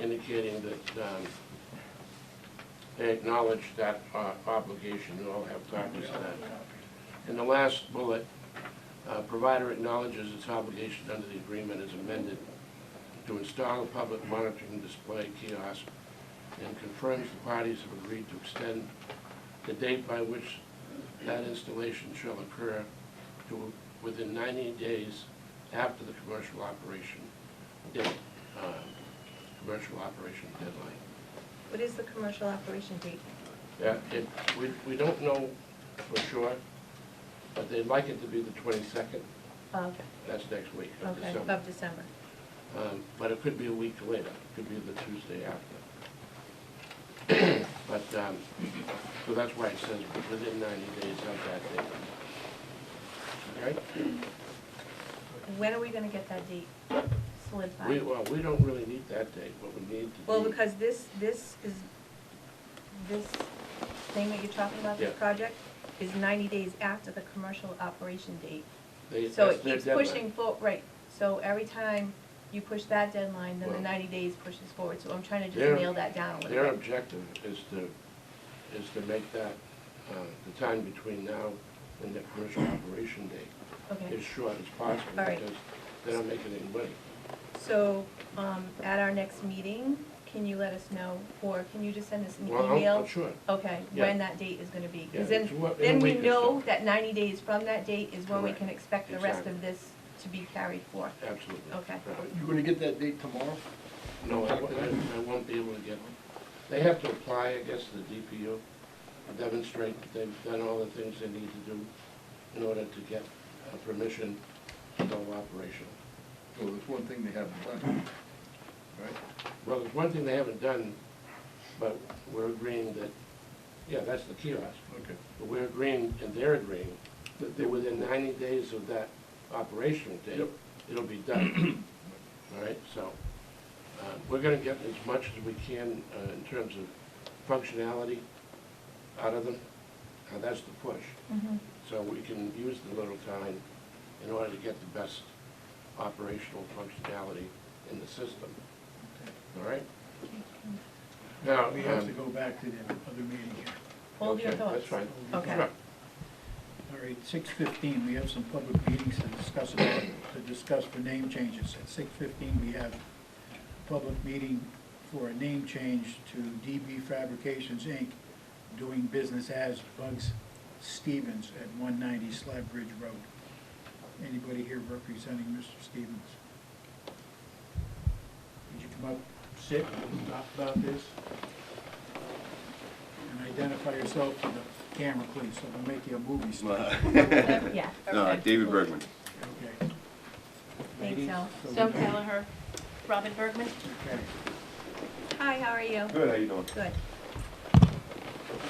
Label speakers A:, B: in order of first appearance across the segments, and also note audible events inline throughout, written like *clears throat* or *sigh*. A: indicating that um, they acknowledge that uh, obligation, we all have copies of that. And the last bullet, uh, provider acknowledges its obligation under the agreement as amended to install a public monitoring display kiosk and confirms the parties have agreed to extend the date by which that installation shall occur to within 90 days after the commercial operation, date, uh, commercial operation deadline.
B: What is the commercial operation date?
A: Yeah, it, we, we don't know for sure, but they'd like it to be the twenty-second,
B: Of,
A: that's next week of
B: okay,
A: December.
B: of December.
A: Um, but it could be a week later, it could be the Tuesday after. *clears throat* But, um, so that's why it says within ninety days of that date. All right?
B: When are we gonna get that date
A: We,
B: solidified?
A: well, we don't really need that date, what we need to do.
B: Well, because this, this is, this thing that you're talking about, this
A: Yeah.
B: project, is ninety days after the commercial operation date.
A: they-
B: So
A: that's
B: it
A: their
B: keeps
A: deadline.
B: pushing for, right, so every time you push that deadline, then the
A: Well-
B: ninety days pushes forward, so I'm trying to
A: Their-
B: just nail that down a
A: Their
B: little bit.
A: objective is to, is to make that, uh, the time between now and the
B: *coughs*
A: commercial operation date
B: Okay,
A: as short as possible,
B: All right.
A: because they don't make any money.
B: so, um, at our next meeting, can you let us know, or can you just send us an
A: Well, I'm-
B: email?
A: I'm sure.
B: Okay,
A: Yeah.
B: when that date is gonna be,
A: Yeah,
B: because then,
A: it's what- in a
B: then we
A: week or
B: know
A: so.
B: that ninety days from that date is when we
A: Correct.
B: can expect the rest of
A: Exactly.
B: this to be carried forth.
A: Absolutely.
B: Okay.
A: Right.
C: You gonna get that date tomorrow?
A: No, I, won't- I I won't be able to get, they have to apply, I guess, to the DPU, demonstrate that they've done all the things they need to do in order to get uh, permission to go operational.
C: Well, there's one thing they haven't done, right?
A: Well, there's one thing they haven't done, but we're agreeing that, yeah, that's the kiosk.
C: Okay.
A: But we're agreeing, and they're agreeing, that they- within ninety days of that operational date,
C: Yep.
A: it'll be
C: *clears throat*
A: done. All right, so, uh, we're gonna get as much as we can uh, in terms of functionality out of them. Uh, That's the push.
D: Mm-hmm.
A: So we can use the little time in order to get the best operational functionality in the system. All right? Now,
E: We have to
A: um,
E: go back to the other meeting here.
B: Hold your
A: okay,
B: thoughts.
A: That's fine.
B: Okay.
A: Sure.
E: All right, six fifteen, we have some public meetings to discuss about, to discuss the name changes. At six fifteen, we have a public meeting for a name change to DB Fabrications, Inc., doing business as Bugs Stevens at one ninety Slab Ridge Road. Anybody here representing Mr. Stevens? Would you come up, sit, and talk about this? And identify yourself to the camera, please, so we'll make you a movie star.
F: *laughs*
B: Yeah.
F: Uh, David Bergman.
E: Okay.
B: Thanks, Al.
E: Ladies,
D: Joan
E: we can-
D: Kelleher, Robin Bergman.
E: Okay.
B: Hi, how are you?
F: Good, how you doing?
B: Good.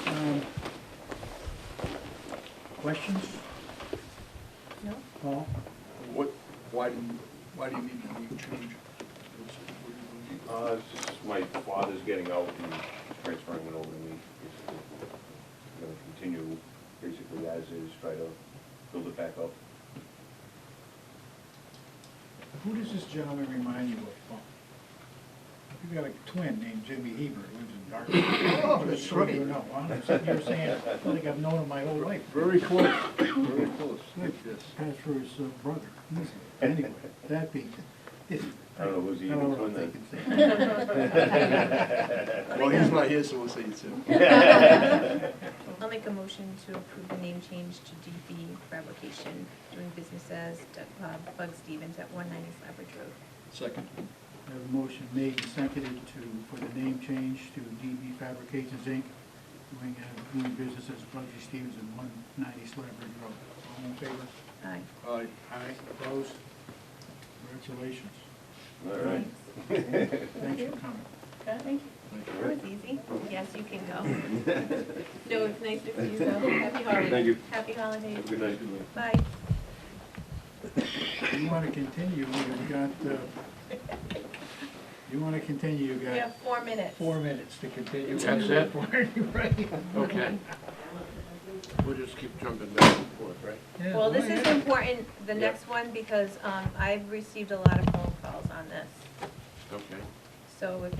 E: Um, Questions?
B: No?
E: Paul?
C: What, why do you, why do you need to name change?
F: Uh, it's just my father's getting out and transferring it over to me. It's Gonna continue basically as is, try to build it back up.
E: Who does this gentleman remind you of, Paul? You've got a twin named Jimmy Heber, who lives in Dartmouth.
C: *laughs* Oh, that's right.
E: You know, I'm sitting here saying, I feel like I've known him my whole life.
C: Very close, very close, like this.
E: That's for his uh,
C: *laughs*
E: brother. Anyway, that being, I
F: I don't know who's the
E: don't
F: evil
E: know
F: twin
E: if they
F: then.
E: can say
D: *laughs*
B: *laughs*
E: that.
C: Well, he's not here, so we'll say it's him.
B: I'll make a motion to approve the name change to DB Fabrication, doing business as uh, Bug Stevens at one ninety Slab Ridge Road.
C: Second.
E: I have a motion made and seconded to, for the name change to DB Fabrications, Inc., doing, uh, doing business as Bugsy Stevens at one ninety Slabridge Road. All in favor?
B: Aye.
C: Aye.
E: Aye. Opposed? Congratulations.
F: *laughs* All right.
E: Thanks for coming.
D: Thank
B: That was easy. Yes, you can
F: *laughs*
B: go.
D: *laughs* No, it's nice to see you, though. Happy holidays.
F: Thank you.
B: Happy holidays.
F: Have a good night.
B: Bye.
E: You wanna continue, you've got, uh, you wanna continue, you've
B: You have
E: got
B: four minutes.
E: four minutes to continue.
A: That's
E: *laughs*
A: it?
E: Right?
A: Okay. We'll just keep jumping back and forth, right?
E: Yeah,
B: Well, this
E: why
B: is
E: not?
B: important, the
A: Yeah.
B: next one, because um, I've received a lot of phone calls on this.
A: Okay.
B: So if